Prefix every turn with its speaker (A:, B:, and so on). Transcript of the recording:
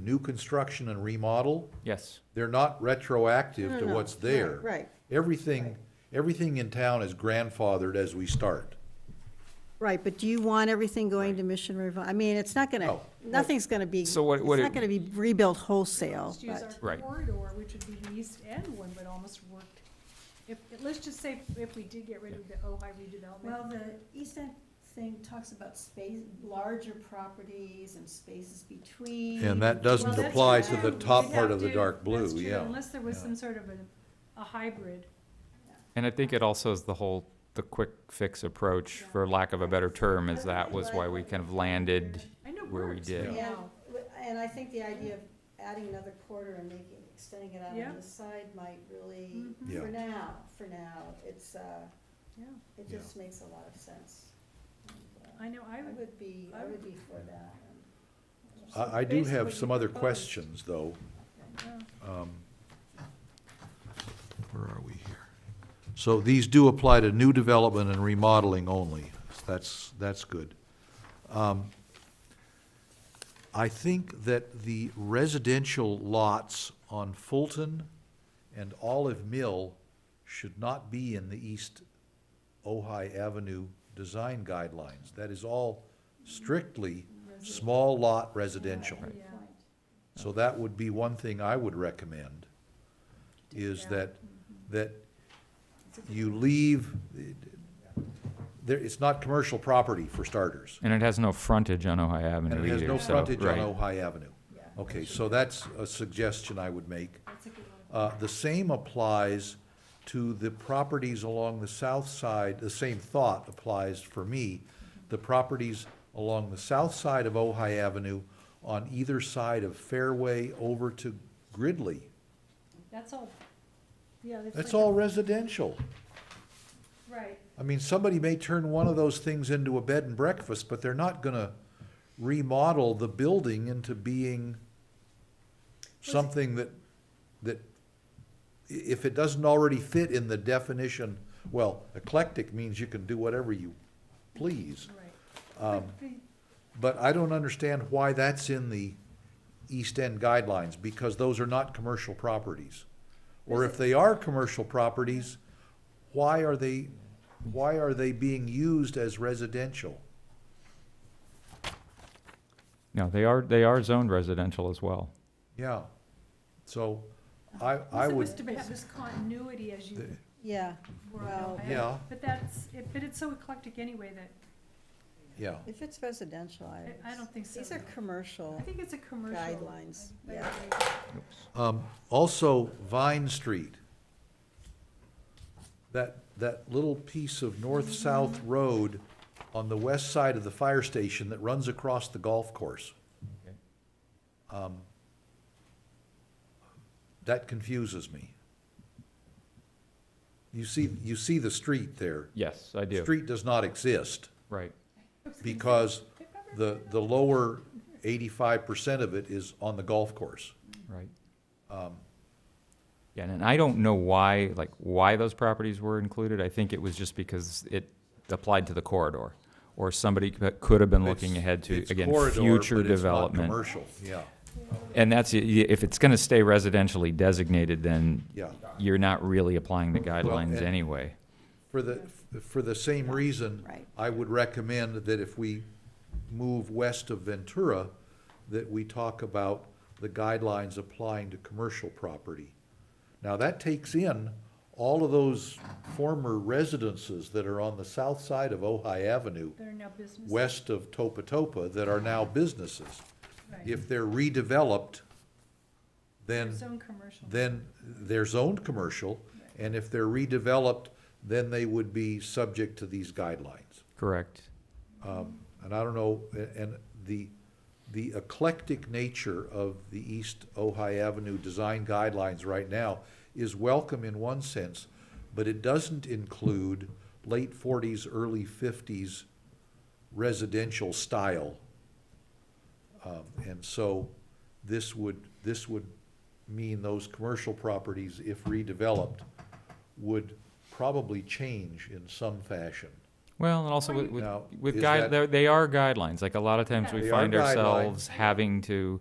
A: new construction and remodel,
B: Yes,
A: they're not retroactive
C: No,
A: to
C: no,
A: what's
C: no,
A: there.
C: Right,
A: Everything, everything in town is grandfathered as we start.
C: right, but do you want everything going to Mission Revival? I mean, it's not gonna,
A: No.
C: nothing's gonna be, it's
B: So what- what it-
C: not gonna be rebuilt wholesale,
D: Let's use
C: but,
D: our
B: Right.
D: corridor, which would be the east end one, but almost work. If, let's just say if we did get rid of the Ojai redevelopment,
E: Well, the East End thing talks about space, larger properties and spaces between.
A: And that
D: Well,
A: doesn't
D: that's
A: apply to
D: true.
A: the
D: We'd
A: top
D: have
A: part of the
D: to-
A: dark blue,
D: that's true,
A: yeah.
D: Unless there was
A: Yeah.
D: some sort of a, a hybrid.
B: and I think it also is the whole, the quick fix approach, for lack of a better term, is that was why we kind of landed,
D: I know
B: Where we
D: works,
B: did.
D: but
C: Yeah.
D: no.
E: And I think the idea of adding another quarter and making, extending it out
D: Yeah.
E: on the side might really,
C: Mm-hmm.
D: Mhm.
A: Yeah.
E: for now, for now, it's, uh,
D: Yeah.
E: it
A: Yeah.
E: just makes a lot of sense. And, uh,
D: I know, I
E: I
D: would,
E: would be, I would be for that.
A: I, I do
D: Based on
A: have
D: what
A: some
D: you
A: other
D: proposed.
A: questions, though.
D: yeah.
A: Um, Where are we here? So these do apply to new development and remodeling only. That's, that's good. Um, I think that the residential lots on Fulton and Olive Mill should not be in the East Ojai Avenue design guidelines. That is all strictly small lot residential.
E: Good
D: Yeah.
E: point.
A: So that would be one thing I would recommend, is that, that you leave, there, it's not commercial property for starters.
B: and it has no frontage on Ojai
A: And
B: Avenue
A: it has
B: either,
A: no
B: so,
A: frontage on
B: right.
A: Ojai Avenue. Okay, so that's a suggestion I would make.
D: That's a good one.
A: Uh, the same applies to the properties along the south side, the same thought applies for me. The properties along the south side of Ojai Avenue on either side of Fairway over to Gridley.
D: That's all, yeah. that's
A: That's
D: like a-
A: all residential.
D: Right,
A: I mean, somebody may turn one of those things into a bed and breakfast, but they're not gonna remodel the building into being something that, that, i- if it doesn't already fit in the definition, well, eclectic means you can do whatever you please.
D: right.
A: Um,
D: But the-
A: But I don't understand why that's in the East End guidelines, because those are not commercial properties. Or if they are commercial properties, why are they, why are they being used as residential?
B: No, they are, they are zoned residential as well.
A: Yeah, so I, I
D: It was
A: would,
D: to have this continuity as you
A: The-
C: yeah.
D: were
C: Well-
D: out.
A: Yeah.
D: But that's, it- but it's so eclectic anyway that
A: yeah,
C: If it's residential,
D: I, I
C: I,
D: don't think so.
C: these are
D: I
C: commercial
D: think it's a commercial.
C: guidelines,
D: I- I
C: yeah.
D: agree.
A: um, also Vine Street. That, that little piece of north-south road on the west side of the fire station that runs across the golf course.
B: Okay.
A: Um, That confuses me. You see, you see the street there.
B: Yes, I do,
A: Street does not exist
B: right,
A: because the, the lower eighty-five percent of it is on the golf course.
B: right.
A: Um,
B: Yeah, and I don't know why, like, why those properties were included. I think it was just because it applied to the corridor. Or somebody c- could have been looking
A: it's-
B: ahead to,
A: it's
B: again,
A: corridor,
B: future
A: but it's not
B: development.
A: Commercial, yeah,
B: And that's, i- if it's gonna stay residentially designated, then
A: yeah.
B: you're not really applying the guidelines
A: and-
B: anyway.
A: For the, for the same reason,
C: Right.
A: I would recommend that if we move west of Ventura, that we talk about the guidelines applying to commercial property. Now, that takes in all of those former residences that are on the south side of Ojai Avenue,
D: They're now business.
A: west of Topa Topa, that are now businesses.
D: Right.
A: If they're redeveloped, then
D: Zone commercial.
A: then they're zoned commercial, and if they're redeveloped, then they would be subject to these guidelines.
B: Correct.
A: Um, and I don't know, a- and the, the eclectic nature of the East Ojai Avenue design guidelines right now is welcome in one sense, but it doesn't include late forties, early fifties residential style. Um, and so this would, this would mean those commercial properties, if redeveloped, would probably change in some fashion.
B: Well, and also
D: Or
B: with,
D: you-
B: with,
A: Now,
B: with
A: is
B: guide,
A: that-
B: they're- they are guidelines, like a lot of times we
A: They are
B: find ourselves
A: guidelines.
B: having to